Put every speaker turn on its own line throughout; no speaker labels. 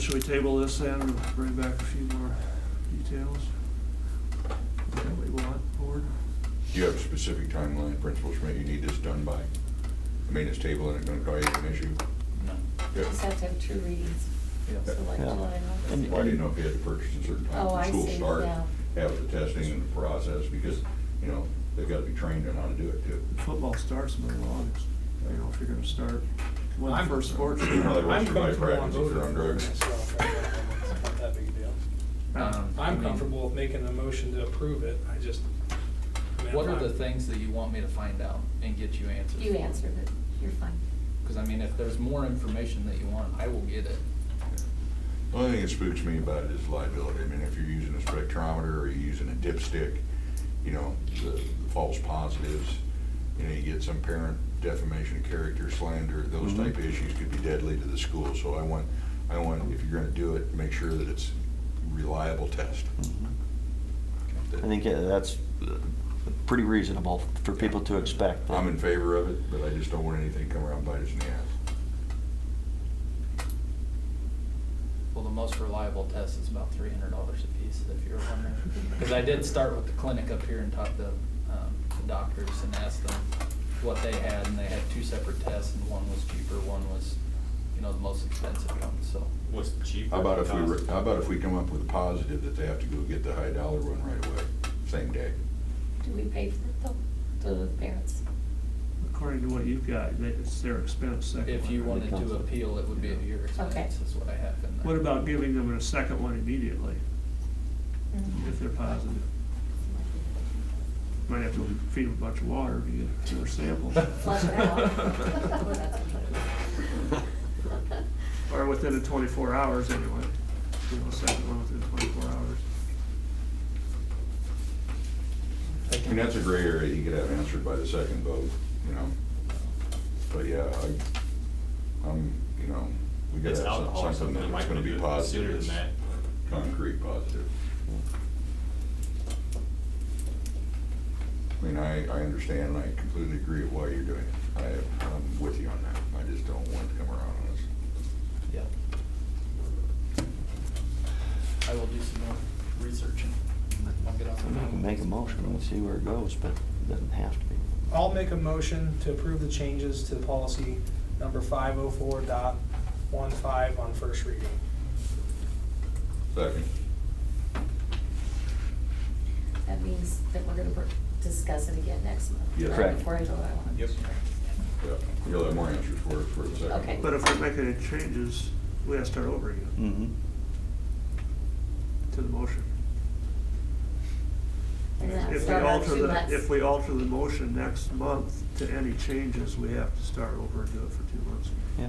Should we table this and bring back a few more details? That we want, board?
Do you have a specific timeline, Principal Schmidt, you need this done by? I mean, it's table and it's gonna cause you an issue.
No.
Yeah.
Just have to have two readings, so like
Yeah.
July and
And-
Well, I
August.
didn't know if you had to purchase a certain time
Oh,
for
I
school
see,
start,
yeah.
have the testing and the process, because, you know, they've gotta be trained on how to do it too.
Football starts in the middle of August, you know, if you're gonna start, when the
I'm-
first sports. Um,
You know, they
I'm
won't survive
comfortable on
practice if they're on
voting
drugs.
for it myself. I don't think it's not that big a deal.
Um,
I'm comfortable with making a motion to approve it, I just. I mean,
What
I'm
are the
not-
things that you want me to find out and get you answers?
You answered it, you're fine.
Because I mean, if there's more information that you want, I will get it.
The Only thing that spooks me about it is liability. I mean, if you're using a spectrometer or you're using a dipstick, you know, the the false positives, you know, you get some parent defamation of character, slander, those
Mhm.
type of issues could be deadly to the school. So I want, I want, if you're gonna do it, make sure that it's reliable test.
Mm. I think uh, that's uh, pretty reasonable for people to expect. that-
I'm in favor of it, but I just don't want anything to come around bite us in the ass.
Well, the most reliable test is about three hundred dollars a piece, if you're wondering. Because I did start with the clinic up here and talked to um, the doctors and asked them what they had, and they had two separate tests, and one was cheaper, one was, you know, the most expensive one, so.
What's cheaper?
How about if we, re- how about if we come up with a positive that they have to go get the high dollar one right away, same day?
Do we pay for it though, to the parents?
According to what you've got, that it's their expense second.
If
one,
you
right?
wanted to appeal, it would be at your
Okay.
expense, is what I have in there.
What about giving them a second one immediately, if they're positive? Might have to feed them a bunch of water to get more samples.
Flush it out.
Or within the twenty-four hours anyway, you know, second one within twenty-four hours.
I mean, that's a gray area, you could have answered by the second vote, you know? But yeah, I, I'm, you know, we gotta
It's
have some-
alcohol or
something
something, it
that's
might
gonna be
be sooner
positive,
than that.
that's concrete positive. I mean, I, I understand, and I completely agree with why you're doing it. I, I'm with you on that, I just don't want it to come around on us.
Yeah. I will do some more research and I'll get
I mean, we can
on.
Make a motion and see where it goes, but it doesn't have to be.
I'll make a motion to approve the changes to the policy number five oh four dot one five on first reading.
Second,
That means that we're gonna br- discuss it again next month.
Yes.
right?
Correct.
Before I go, I wanna be
Yep.
sure.
yeah, you'll have more answers for it for the second.
Okay.
But if we make any changes, we gotta start over again
Mm-hmm.
to the motion.
And then
If we
start on
alter
two
the,
months.
if we alter the motion next month to any changes, we have to start over and do it for two months.
Yeah.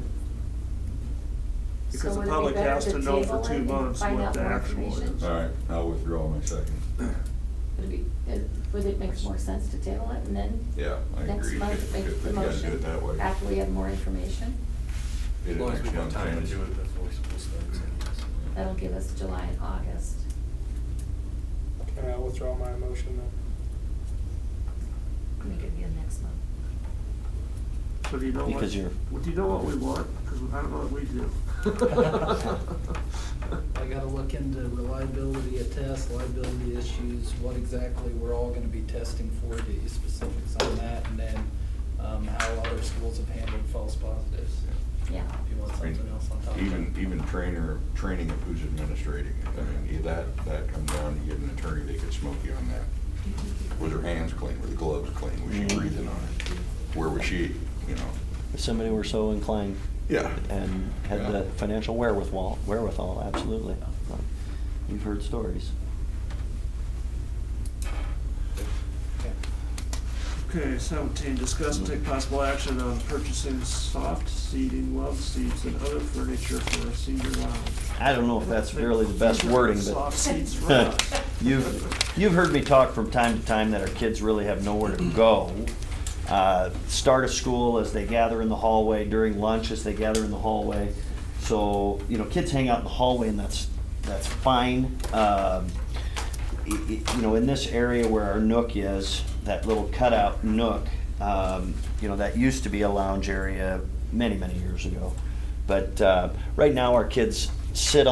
Because
So
the
would it be
public
better
has to know for
table it
two
and
months
find
what
out
the
more
actual
information?
is.
All right, I'll withdraw my second.
Would it be, it- would it make more sense to table it and then?
Yeah, I agree.
Next month,
If-
make
if
the
they gotta do
motion.
it that way.
After we have more information,
Get it
As long as
next
we have
month,
time to
James.
do it before school starts.
that'll give us July and August.
Can I withdraw my motion then?
Make it again next month.
So do you know what?
Because you're-
well, Do you know what we want? Because I don't know what we do.
I gotta look into reliability of tests, liability issues, what exactly we're all gonna be testing for, the specifics on that, and then, um, how other schools have handled false positives.
Yeah.
If you want
I mean,
something else on top of that.
Even, even trainer, training of who's administrating it. I mean, yeah, that, that comes down to getting an attorney that could smoke you on that. Was her hands clean? Were the gloves clean? Was she
Mm-hmm.
Mhm.
breathing on it? Where was she, you know?
If somebody were so inclined
Yeah.
and had the financial wherewithal, wherewithal, absolutely. You've heard stories.
Okay, seventeen, discuss and take possible action on purchasing soft seating, love seats, and other furniture for a senior lounge.
I don't know if that's really the best wording,
Soft
but
seats for us.
you've, you've heard me talk from time to time that our kids really have nowhere to go. Uh, Start of school, as they gather in the hallway, during lunch, as they gather in the hallway. So, you know, kids hang out in the hallway and that's, that's fine. Um, i- i- You know, in this area where our nook is, that little cutout nook, um, you know, that used to be a lounge area many, many years ago. But uh, right now, our kids sit